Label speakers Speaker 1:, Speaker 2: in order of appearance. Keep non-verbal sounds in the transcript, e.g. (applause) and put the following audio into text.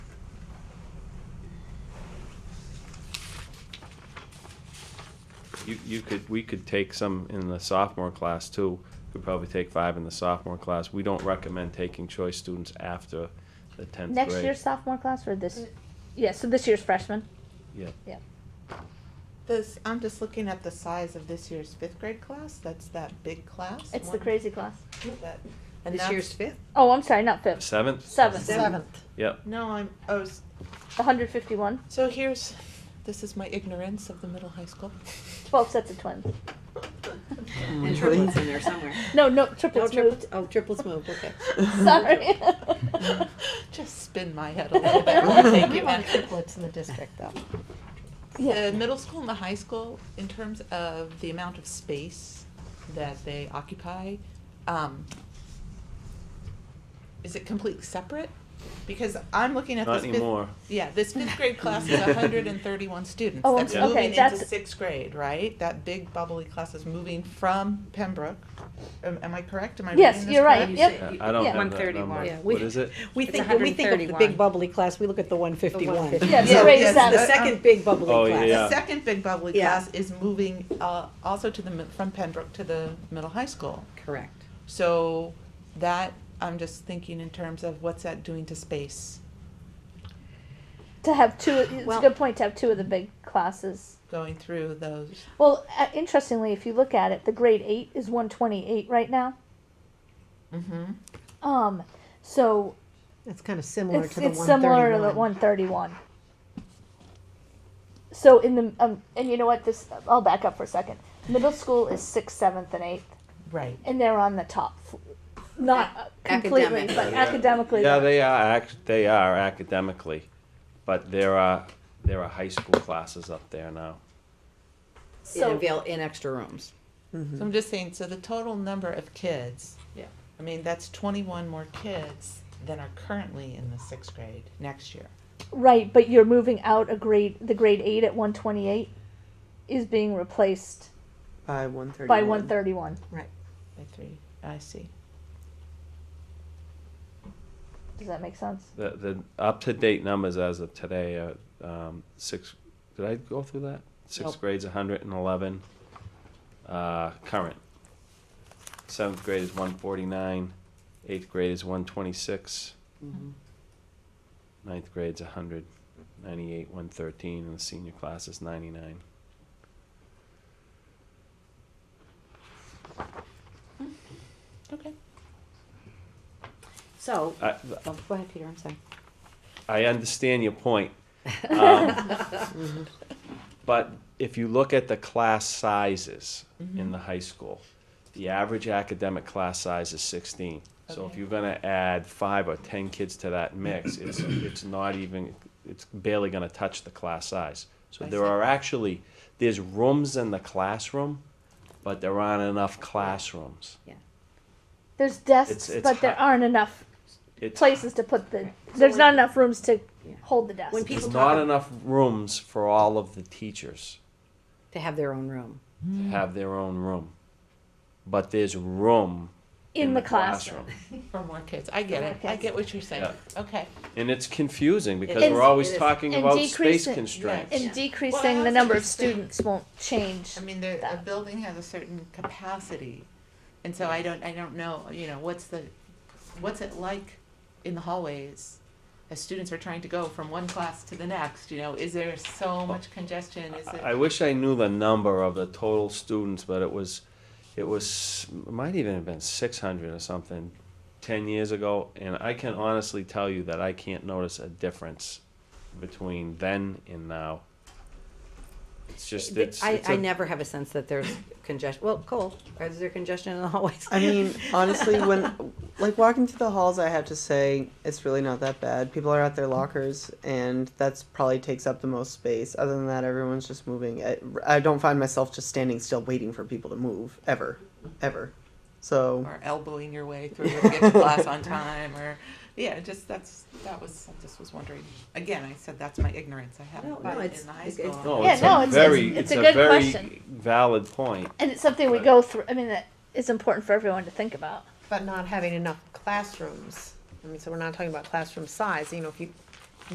Speaker 1: you, you could, we could take some in the sophomore class too. Could probably take five in the sophomore class. We don't recommend taking choice students after the tenth grade.
Speaker 2: Next year's sophomore class or this? Yeah, so this year's freshman.
Speaker 3: This, I'm just looking at the size of this year's fifth grade class. That's that big class.
Speaker 2: It's the
Speaker 3: one
Speaker 2: crazy class.
Speaker 3: that- And
Speaker 4: This
Speaker 3: that's-
Speaker 4: year's fifth?
Speaker 2: Oh, I'm sorry, not fifth.
Speaker 1: Seventh?
Speaker 2: Seventh.
Speaker 4: Seventh.
Speaker 3: No, I'm, oh, s-
Speaker 2: 151.
Speaker 3: so here's, this is my ignorance of the middle high school.
Speaker 2: 12 sets of twins.
Speaker 4: (laughs) And triplets in there somewhere.
Speaker 2: No, no,
Speaker 4: No
Speaker 2: triplets moved.
Speaker 4: triplets, oh, triplets moved, (laughs) okay.
Speaker 2: (laughs) Sorry.
Speaker 3: (laughs)
Speaker 4: (laughs)
Speaker 3: Just spin my head a little bit. Thank (laughs) you, Ann.
Speaker 5: triplets in the district though.
Speaker 3: The middle school and the high school, in terms of the amount of space that they occupy, um, is it completely separate? Because I'm looking at this
Speaker 1: Not
Speaker 3: fifth.
Speaker 1: anymore.
Speaker 3: Yeah,
Speaker 2: (laughs)
Speaker 3: this fifth grade class is hundred and thirty-one students.
Speaker 2: Oh, I'm
Speaker 3: That's
Speaker 1: so- okay,
Speaker 3: moving into
Speaker 2: that's-
Speaker 3: sixth grade, right? That big bubbly class is moving from Pembroke. Am, am I correct? Am I reading
Speaker 2: Yes,
Speaker 3: this
Speaker 2: you're right.
Speaker 3: correct?
Speaker 2: Yep.
Speaker 1: Yeah, I don't
Speaker 2: Yeah.
Speaker 1: have that
Speaker 6: 131.
Speaker 1: number.
Speaker 4: Yeah, we-
Speaker 1: What is
Speaker 2: (laughs)
Speaker 1: it?
Speaker 4: We
Speaker 6: It's
Speaker 4: think, when we think of the
Speaker 6: 131.
Speaker 4: big bubbly class, we look at the one fifty-one.
Speaker 6: 151.
Speaker 2: Yeah, the
Speaker 3: Yeah,
Speaker 2: grade
Speaker 3: yes,
Speaker 4: That's the
Speaker 2: seven.
Speaker 4: second big bubbly
Speaker 1: Oh,
Speaker 4: class.
Speaker 1: yeah.
Speaker 3: The second big bubbly
Speaker 4: Yeah.
Speaker 3: class is moving, uh, also to the, mi- from Pembroke to the middle high school.
Speaker 4: Correct.
Speaker 3: So that, I'm just thinking in terms of what's that doing to space
Speaker 2: To have two, it's
Speaker 4: Well-
Speaker 2: a good point to have two of the big classes.
Speaker 3: going through those.
Speaker 2: Well, uh, interestingly, if you look at it, the grade 8 is 128 right now.
Speaker 3: Mm-hmm.
Speaker 2: Um, so
Speaker 5: That's kind of similar
Speaker 2: it's,
Speaker 5: to the
Speaker 2: it's similar to the
Speaker 5: 131.
Speaker 2: 131. So in the um, and you know what this I'll back up for a second. Middle school is sixth, seventh, and eighth,
Speaker 3: Right.
Speaker 2: and they're on the top, fl- not uh, completely,
Speaker 4: Academic.
Speaker 2: but academically.
Speaker 1: Yeah, they are act, they are academically, but there are, there are high school classes up there now.
Speaker 4: In
Speaker 2: so
Speaker 4: avail, in extra rooms.
Speaker 3: So I'm just saying, so the total number of kids.
Speaker 4: Yeah.
Speaker 3: I mean, that's twenty-one more kids than are currently in the sixth grade next year.
Speaker 2: right, but you're moving out a grade. The grade eight at 128 is being replaced
Speaker 7: By one thirty.
Speaker 2: by 131.
Speaker 3: By three, I see.
Speaker 2: Does that make sense?
Speaker 1: The, the up-to-date numbers as of today are, um, six, did I go through that? Sixth grade's hundred and eleven, uh, current. Seventh grade is one forty-nine, eighth grade is one twenty-six. Ninth grade's hundred, ninety-eight, one thirteen, and the senior class is ninety-nine.
Speaker 3: Okay.
Speaker 4: So,
Speaker 1: I,
Speaker 4: oh, go ahead, Peter, I'm sorry.
Speaker 1: I understand your
Speaker 4: (laughs)
Speaker 1: point. Um,
Speaker 4: Mm-hmm.
Speaker 1: but if you look at the class sizes
Speaker 4: Mm-hmm.
Speaker 1: in the high school, the average academic class size is 16. So if
Speaker 3: Okay.
Speaker 1: you're going to add five or 10 kids to that mix, it's, it's not even, it's barely going to touch the class size. So
Speaker 3: I
Speaker 1: there
Speaker 3: see.
Speaker 1: are actually, there's rooms in the classroom, but there aren't enough classrooms.
Speaker 2: There's desks,
Speaker 1: It's- it's
Speaker 2: but there
Speaker 1: hot.
Speaker 2: aren't enough
Speaker 1: It's,
Speaker 2: places to put the. There's not enough rooms to
Speaker 4: Yeah.
Speaker 2: hold the desks.
Speaker 4: When
Speaker 1: there's
Speaker 4: people
Speaker 1: not
Speaker 4: talk,
Speaker 1: enough rooms for all of the teachers.
Speaker 4: to have their own room.
Speaker 1: to have their own room. But there's room
Speaker 2: in, the, classroom.
Speaker 3: For more kids. I get it. I get what you're saying. Okay.
Speaker 1: And it's confusing because
Speaker 2: is,
Speaker 1: we're always
Speaker 4: it is.
Speaker 1: talking
Speaker 2: And
Speaker 1: about space
Speaker 2: decreasing-
Speaker 1: constraints.
Speaker 2: And
Speaker 3: Yeah.
Speaker 2: decreasing
Speaker 3: Well, I
Speaker 2: the number of
Speaker 3: also think-
Speaker 2: students won't change.
Speaker 3: I mean, the, a building has a certain capacity, and so I don't, I don't know, you know, what's the, what's it like in the hallways? As students are trying to go from one class to the next, you know, is there so much congestion, is
Speaker 1: I
Speaker 3: it?
Speaker 1: wish I knew the number of the total students, but it was, it was, it might even have been six hundred or something ten years ago, and I can honestly tell you that I can't notice a difference between then and now. It's just, it's,
Speaker 4: I,
Speaker 1: it's
Speaker 4: I
Speaker 1: a-
Speaker 4: never have a sense that there's congestion, well, Cole, is there congestion in the hallways?
Speaker 7: I mean, honestly, when like walking through the halls, I have to say it's really not that bad. People are at their lockers, and that's probably takes up the most space. Other than that, everyone's just moving. I, I don't find myself just standing still waiting for people to move ever, ever. So
Speaker 3: Or elbowing your way through to get to class on time, or, yeah, just, that's, that was, I just was wondering. Again, I said that's my ignorance, I
Speaker 4: No,
Speaker 3: haven't
Speaker 4: no,
Speaker 3: been
Speaker 4: it's-
Speaker 3: in the high
Speaker 4: it's-
Speaker 3: school.
Speaker 4: it's-
Speaker 1: No,
Speaker 2: Yeah,
Speaker 1: it's
Speaker 2: no,
Speaker 1: a
Speaker 2: it's-
Speaker 1: very,
Speaker 2: it's-
Speaker 1: it's
Speaker 2: it's
Speaker 1: a
Speaker 2: a good
Speaker 1: very
Speaker 2: question.
Speaker 1: valid point.
Speaker 2: and it's something we
Speaker 1: Right.
Speaker 2: go through. I mean, that is important for everyone to think about.
Speaker 5: But not having enough classrooms. I mean, so we're not talking about classroom size, you know, if you